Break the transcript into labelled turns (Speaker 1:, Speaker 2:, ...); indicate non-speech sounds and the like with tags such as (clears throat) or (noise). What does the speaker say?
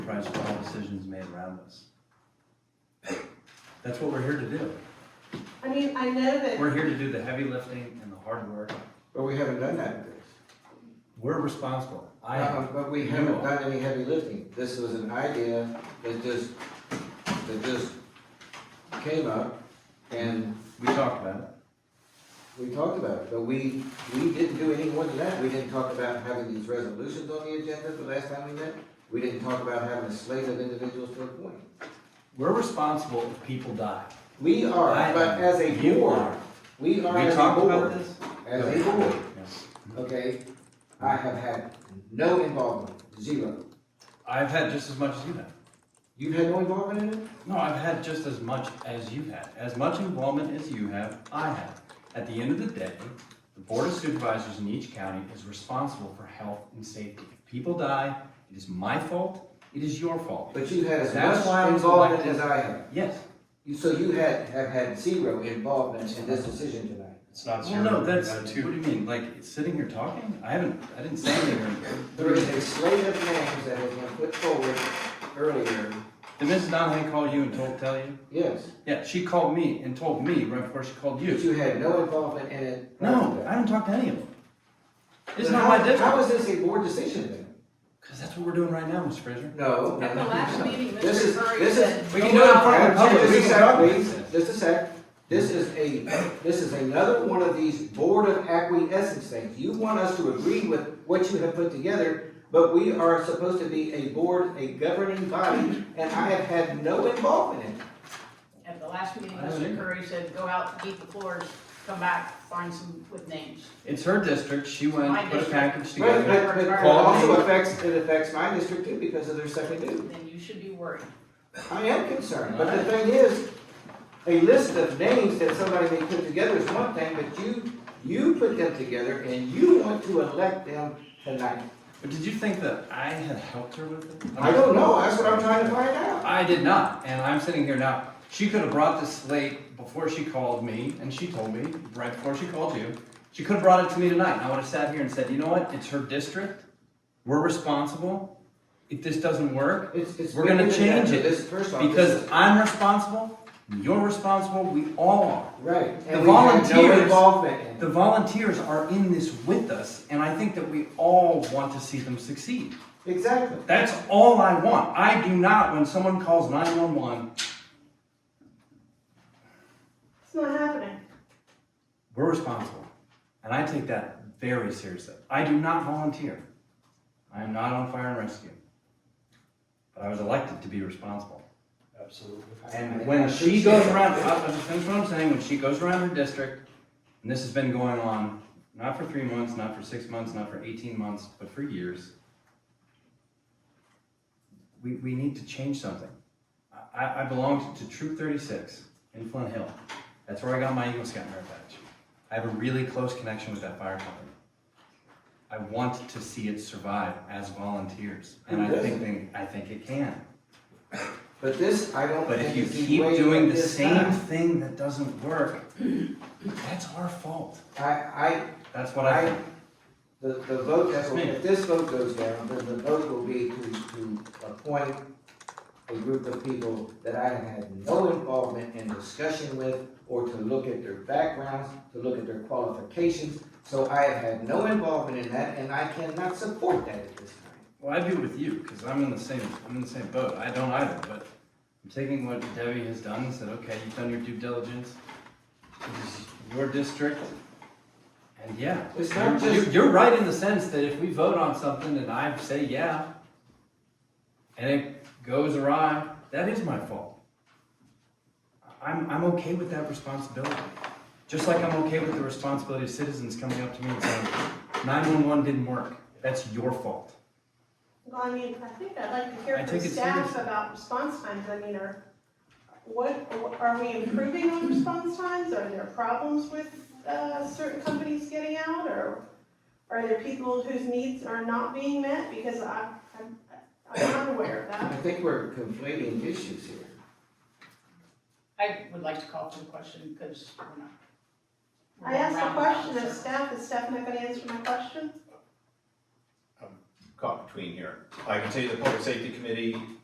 Speaker 1: enterprise for all decisions made around us. That's what we're here to do.
Speaker 2: I mean, I know that,
Speaker 1: We're here to do the heavy lifting and the hard work.
Speaker 3: But we haven't done that.
Speaker 1: We're responsible. I
Speaker 3: Uh, But we
Speaker 1: you
Speaker 3: haven't
Speaker 1: all.
Speaker 3: done any heavy lifting. This was an idea that just, that just came up and
Speaker 1: We talked about it.
Speaker 3: we talked about it, but we, we didn't do any more than that. We didn't talk about having these resolutions on the agenda the last time we met. We didn't talk about having a slate of individuals to appoint.
Speaker 1: We're responsible if people die.
Speaker 3: We are,
Speaker 1: I-
Speaker 3: but as a
Speaker 1: you
Speaker 3: board,
Speaker 1: are.
Speaker 3: we are
Speaker 1: We
Speaker 3: as a
Speaker 1: talked about
Speaker 3: board,
Speaker 1: this?
Speaker 3: as a board,
Speaker 1: Yes.
Speaker 3: okay? I have had no involvement, zero.
Speaker 1: I've had just as much as you have.
Speaker 3: You've had no involvement in it?
Speaker 1: No, I've had just as much as you have. As much involvement as you have, I have. At the end of the day, the Board of Supervisors in each county is responsible for health and safety. If people die, it is my fault, it is your fault.
Speaker 3: But you had as
Speaker 1: That's why I
Speaker 3: much
Speaker 1: was
Speaker 3: involvement
Speaker 1: elected.
Speaker 3: as I have.
Speaker 1: Yes.
Speaker 3: You- So you had, have had zero involvement in this decision tonight.
Speaker 4: It's not
Speaker 1: Well,
Speaker 4: zero.
Speaker 1: no, that's,
Speaker 4: you
Speaker 1: what
Speaker 4: got
Speaker 1: do
Speaker 4: two.
Speaker 1: you mean? Like, sitting here talking? I haven't, I didn't say anything. or anything.
Speaker 3: There is a slate of names that has been put forward earlier,
Speaker 1: Did Mrs. Donahue call you and told, tell you?
Speaker 3: yes,
Speaker 1: Yeah, she called me and told me right before she called
Speaker 3: but
Speaker 1: you.
Speaker 3: you had no involvement in it. prior to
Speaker 1: No, I
Speaker 3: that.
Speaker 1: haven't talked to any of them. It's
Speaker 3: Then
Speaker 1: not
Speaker 3: how-
Speaker 1: my district.
Speaker 3: How is this a board decision then?
Speaker 1: Because that's what we're doing right now, Mr. Fraser.
Speaker 3: No.
Speaker 5: At the last meeting, Mr.
Speaker 3: This is-
Speaker 5: Curry
Speaker 3: this is-
Speaker 5: said,
Speaker 1: We
Speaker 5: "Go
Speaker 1: can do it in
Speaker 5: out
Speaker 1: front of the
Speaker 5: and
Speaker 1: public.
Speaker 5: do
Speaker 3: Just a
Speaker 1: We
Speaker 5: it."
Speaker 1: can
Speaker 3: sec,
Speaker 1: talk about
Speaker 3: please,
Speaker 1: this.
Speaker 3: just a sec. This is a, this is another one of these board of acquiescence things. You want us to agree with what you have put together, but we are supposed to be a board, a governing body, and I have had no involvement in it.
Speaker 5: At the last meeting,
Speaker 1: I don't either.
Speaker 5: Mr. Curry said, go out, eat the floors, come back, find some with names.
Speaker 1: It's her district. She went,
Speaker 5: My
Speaker 1: put a
Speaker 5: district.
Speaker 1: package
Speaker 3: But,
Speaker 1: together.
Speaker 3: but, but it
Speaker 1: Call
Speaker 3: also
Speaker 1: me.
Speaker 3: affects, it affects my district too because of their second due.
Speaker 5: Then you should be worried.
Speaker 3: I am concerned, but the thing is, a list of names that somebody may put together is one thing, but you, you put them together and you want to elect them tonight.
Speaker 1: But did you think that I had helped her with it?
Speaker 3: I don't know, that's what I'm trying to find out.
Speaker 1: I did not, and I'm sitting here now. She could have brought this slate before she called me, and she told me right before she called you. She could have brought it to me tonight, and I would have sat here and said, you know what? It's her district. We're responsible. If this doesn't work,
Speaker 3: It's, it's.
Speaker 1: We're gonna
Speaker 3: bigger than that.
Speaker 1: change it,
Speaker 3: This, first off, this
Speaker 1: because
Speaker 3: is-
Speaker 1: I'm responsible, you're responsible, we all are.
Speaker 3: right,
Speaker 1: the
Speaker 3: and we had
Speaker 1: volunteers-
Speaker 3: no involvement in
Speaker 1: The
Speaker 3: it.
Speaker 1: volunteers are in this with us, and I think that we all want to see them succeed.
Speaker 3: Exactly.
Speaker 1: That's all I want. I do not, when someone calls 911,
Speaker 2: it's not happening.
Speaker 1: we're responsible. And I take that very seriously. I do not volunteer. I am not on fire and rescue. But I was elected to be responsible.
Speaker 4: Absolutely.
Speaker 1: And when she goes around, I'll I'll just finish what I'm saying, when she goes around her district, and this has been going on, not for three months, not for six months, not for eighteen months, but for years. We, we need to change something. I- I, I belong to Troop thirty-six in Flint Hill. That's where I got my Eagle Scout merit badge. I have a really close connection with that fire company. I want to see it survive as volunteers, and I think, they- I think it can.
Speaker 3: But this, I don't
Speaker 1: But if
Speaker 3: think
Speaker 1: you
Speaker 3: is the
Speaker 1: keep
Speaker 3: way
Speaker 1: doing
Speaker 3: that
Speaker 1: the
Speaker 3: this
Speaker 1: same
Speaker 3: done.
Speaker 1: thing that doesn't work, (clears throat) that's our fault.
Speaker 3: I,
Speaker 1: That's what I
Speaker 3: I, I,
Speaker 1: think.
Speaker 3: the, the vote,
Speaker 1: That's me.
Speaker 3: if this vote goes down, then the vote will be to, to appoint a group of people that I have had no involvement in discussion with, or to look at their backgrounds, to look at their qualifications. So I have had no involvement in that, and I cannot support that at this time.
Speaker 1: Well, I'd be with you, because I'm in the same, I'm in the same boat. I don't either, but I'm taking what Debbie has done and said, okay, you've done your due diligence. This is your district. And yeah,
Speaker 3: It's not
Speaker 1: you're-
Speaker 3: just-
Speaker 1: you're right in the sense that if we vote on something and I say yeah, and it goes awry, that is my fault. I'm, I'm okay with that responsibility. Just like I'm okay with the responsibility of citizens coming up to me and saying, nine-one-one didn't work. That's your fault.
Speaker 2: Well, I mean, I think I'd like to
Speaker 1: I
Speaker 2: hear from
Speaker 1: take it
Speaker 2: staff
Speaker 1: seriously.
Speaker 2: about response times, I mean, are, what, are we improving on response times? Are there problems with, uh, certain companies getting out, or are there people whose needs are not being met? Because I, I'm, I'm not aware of
Speaker 3: I
Speaker 2: that.
Speaker 3: think we're conflating issues here.
Speaker 5: I would like to call to the question because we're not. we're
Speaker 2: I asked a
Speaker 5: round about
Speaker 2: question of
Speaker 5: this.
Speaker 2: staff, is staff not gonna answer my question?
Speaker 4: Caught between here. I can tell you the Public Safety Committee